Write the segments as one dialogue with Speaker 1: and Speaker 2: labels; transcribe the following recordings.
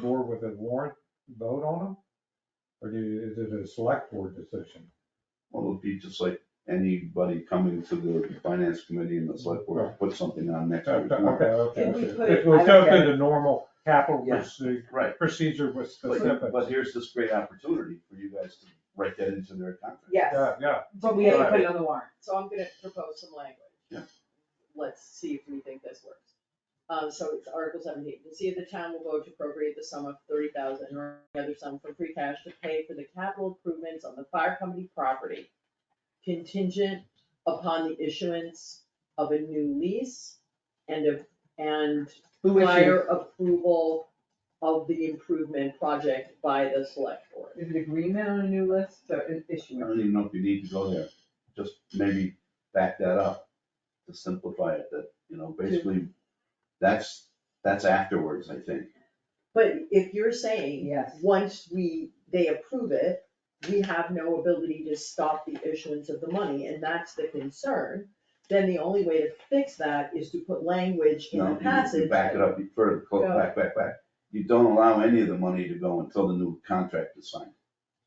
Speaker 1: board with a warrant vote on them? Or do you, is it a select board decision?
Speaker 2: Well, it'll be just like anybody coming to the finance committee and the select board, put something on next week's
Speaker 1: Okay,
Speaker 2: warrant.
Speaker 1: okay.
Speaker 3: Can we
Speaker 1: okay.
Speaker 3: put
Speaker 1: It
Speaker 3: it-
Speaker 1: was
Speaker 3: I don't
Speaker 1: just
Speaker 3: get
Speaker 1: the normal capital
Speaker 3: Yeah.
Speaker 1: proce-
Speaker 2: Right,
Speaker 1: procedure with
Speaker 2: but,
Speaker 1: specific.
Speaker 2: but here's this great opportunity for you guys to write that into their contract.
Speaker 3: Yes,
Speaker 1: Yeah, yeah,
Speaker 3: but we have to
Speaker 1: Right.
Speaker 3: put it on the warrant, so I'm gonna propose some language.
Speaker 2: Yeah.
Speaker 3: Let's see if we think this works. Um, so it's Article seventeen, to see if the town will vote to appropriate the sum of thirty thousand or another sum from free cash to pay for the capital improvements on the fire company property contingent upon the issuance of a new lease and of, and
Speaker 4: Who is she?
Speaker 3: prior approval of the improvement project by the select board.
Speaker 4: Is it agreement on a new list or an
Speaker 2: I
Speaker 4: issuance?
Speaker 2: don't even know if you need to go there, just maybe back that up to simplify it, that, you know, basically, that's, that's afterwards, I think.
Speaker 3: But if you're saying.
Speaker 4: Yes.
Speaker 3: Once we, they approve it, we have no ability to stop the issuance of the money, and that's the concern. Then the only way to fix that is to put language in
Speaker 2: No,
Speaker 3: the
Speaker 2: you-
Speaker 3: passage.
Speaker 2: You back it up you further, close,
Speaker 3: Go.
Speaker 2: back, back, back. You don't allow any of the money to go until the new contract is signed.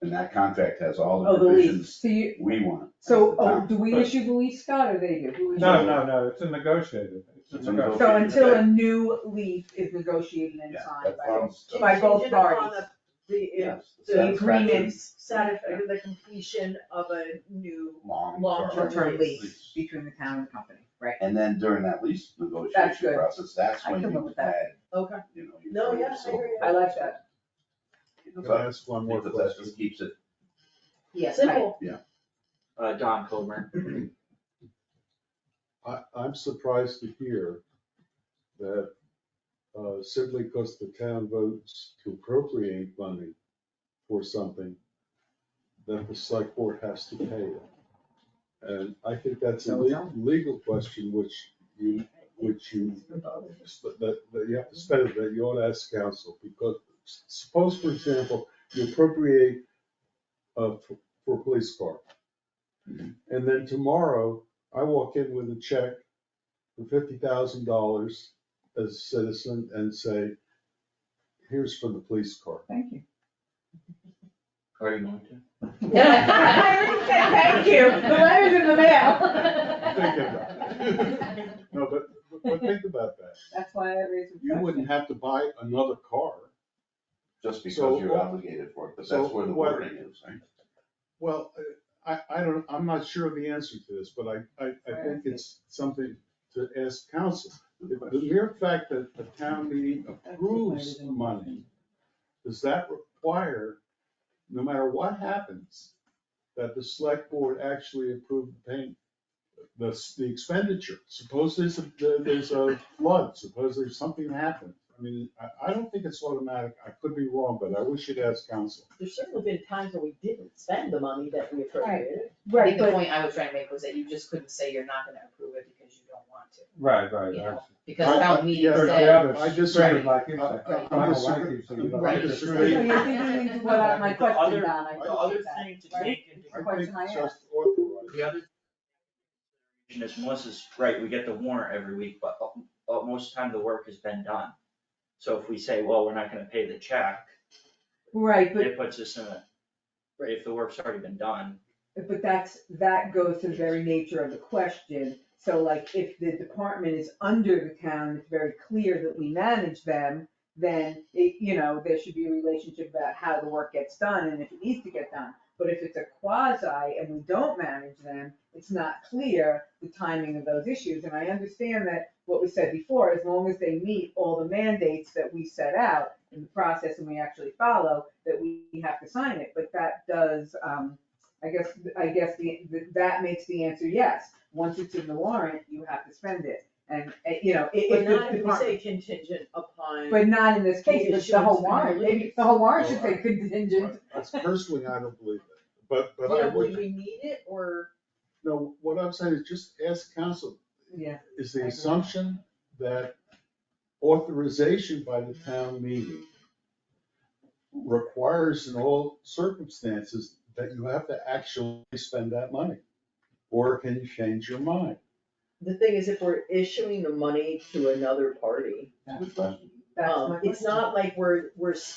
Speaker 2: And that contract has all the
Speaker 3: Oh, the lease.
Speaker 2: provisions
Speaker 4: So you,
Speaker 2: we want. as
Speaker 4: so,
Speaker 2: the
Speaker 4: oh,
Speaker 2: town.
Speaker 4: do we
Speaker 1: But-
Speaker 4: issue the lease, Scott, or they do? Who issues
Speaker 1: no,
Speaker 4: it?
Speaker 1: no, no, it's a negotiated, it's a
Speaker 2: It's a
Speaker 1: negotiated.
Speaker 4: So
Speaker 2: Okay.
Speaker 4: until a new lease is negotiated and
Speaker 2: Yeah,
Speaker 4: signed
Speaker 2: that
Speaker 4: by,
Speaker 2: sounds-
Speaker 4: By both
Speaker 3: Contingent upon
Speaker 4: parties.
Speaker 3: The, the,
Speaker 2: yes,
Speaker 3: the
Speaker 2: satisfaction,
Speaker 3: agreement, satisfied, the completion of a new,
Speaker 2: Long-term.
Speaker 3: Long-term
Speaker 4: long-term lease
Speaker 2: lease.
Speaker 4: between the town and the company, right?
Speaker 2: And then during that lease
Speaker 4: That's
Speaker 2: negotiation
Speaker 4: good.
Speaker 2: process, that's
Speaker 4: I
Speaker 2: when
Speaker 4: can live
Speaker 2: you
Speaker 4: with that.
Speaker 2: add,
Speaker 3: okay,
Speaker 2: you know, your.
Speaker 3: No,
Speaker 2: further
Speaker 3: yeah, I
Speaker 2: silver
Speaker 3: agree.
Speaker 4: I
Speaker 2: bullet.
Speaker 4: like that.
Speaker 1: Can
Speaker 2: So
Speaker 1: I
Speaker 2: I
Speaker 1: ask one more
Speaker 2: think that that
Speaker 1: question?
Speaker 2: just keeps it,
Speaker 4: Yes.
Speaker 3: simple.
Speaker 5: uh, Don Coburn.
Speaker 6: I, I'm surprised to hear that uh, simply because the town votes to appropriate money for something, that the select board has to pay it. And I think that's a le- legal question which you, which you, that, that you have to spend, that you ought to ask council. Because s- suppose, for example, you appropriate uh, for, for a police car. And then tomorrow, I walk in with a check for fifty thousand dollars as a citizen and say, here's for the police car.
Speaker 4: Thank you.
Speaker 5: Are you going to?
Speaker 4: I already said thank you, the letter's in the
Speaker 6: Think
Speaker 4: mail.
Speaker 6: about it. No, but, but think about that.
Speaker 4: That's why I raised the
Speaker 6: You
Speaker 4: question.
Speaker 6: wouldn't have to buy another car.
Speaker 2: just because
Speaker 6: So-
Speaker 2: you're obligated for it, but
Speaker 6: so
Speaker 2: that's where the
Speaker 6: what-
Speaker 2: wording is, right?
Speaker 6: Well, I, I don't, I'm not sure of the answer to this, but I, I, I think it's something to ask council. The the mere fact that the town meeting approves money, does that require, no matter what happens, that the select board actually approve the payment? The, s- the expenditure, suppose there's a, there's a flood, suppose there's something happened. I mean, I, I don't think it's automatic, I could be wrong, but I wish you'd ask council.
Speaker 3: There's certainly been times when we didn't spend the money that we appropriated.
Speaker 7: I think
Speaker 4: Right,
Speaker 7: the
Speaker 4: but
Speaker 7: point I was trying to make was that you just couldn't say you're not gonna approve it because you don't want to,
Speaker 1: Right, right,
Speaker 7: Yeah.
Speaker 1: right.
Speaker 7: because
Speaker 6: I- I-
Speaker 7: town meeting
Speaker 6: yeah,
Speaker 1: There's the
Speaker 7: said,
Speaker 1: other
Speaker 6: I
Speaker 1: side,
Speaker 6: disagree.
Speaker 1: Like you said,
Speaker 6: I- I-
Speaker 1: I'm
Speaker 6: I
Speaker 1: a white
Speaker 6: disagree.
Speaker 1: person, but I
Speaker 6: Right.
Speaker 1: disagree.
Speaker 4: so you're thinking into what I- my
Speaker 5: The other-
Speaker 4: question, Don, I
Speaker 5: The
Speaker 4: thought
Speaker 5: other
Speaker 4: that.
Speaker 5: thing to
Speaker 4: right?
Speaker 5: take into
Speaker 4: The question I
Speaker 6: I think
Speaker 4: asked.
Speaker 6: just authorize.
Speaker 5: The other thing is Melissa's right, we get the warrant every week, but al- al- most of the time the work has been done. So if we say, well, we're not gonna pay the check,
Speaker 4: Right, but,
Speaker 5: it puts us in a, if the work's already been done,
Speaker 4: but that's, that goes to the very nature of the question. So like, if the department is under the town, it's very clear that we manage them, then it, you know, there should be a relationship about how the work gets done and if it needs to get done. But if it's a quasi and we don't manage them, it's not clear the timing of those issues. And I understand that what was said before, as long as they meet all the mandates that we set out in the process and we actually follow, that we have to sign it, but that does, um, I guess, I guess the, that makes the answer yes. Once it's in the warrant, you have to spend it, and, eh, you know, it,
Speaker 3: But
Speaker 4: it.
Speaker 3: not if we say contingent upon.
Speaker 4: But not in this case, it's the whole
Speaker 3: Issuance.
Speaker 4: warrant, maybe the whole warrant should say contingent.
Speaker 6: That's personally, I don't believe it, but,
Speaker 3: You
Speaker 6: but I
Speaker 3: know, would
Speaker 6: would,
Speaker 3: we need it, or?
Speaker 6: no, what I'm saying is just ask council,
Speaker 4: Yeah,
Speaker 6: is
Speaker 4: I
Speaker 6: the
Speaker 4: agree.
Speaker 6: assumption that authorization by the town meeting requires in all circumstances that you have to actually spend that money? Or can you change your mind?
Speaker 3: The thing is, if we're issuing the money to another party,
Speaker 2: It's a good question.
Speaker 4: That's
Speaker 3: Um,
Speaker 4: my
Speaker 3: It's
Speaker 4: question.
Speaker 3: not like we're, we're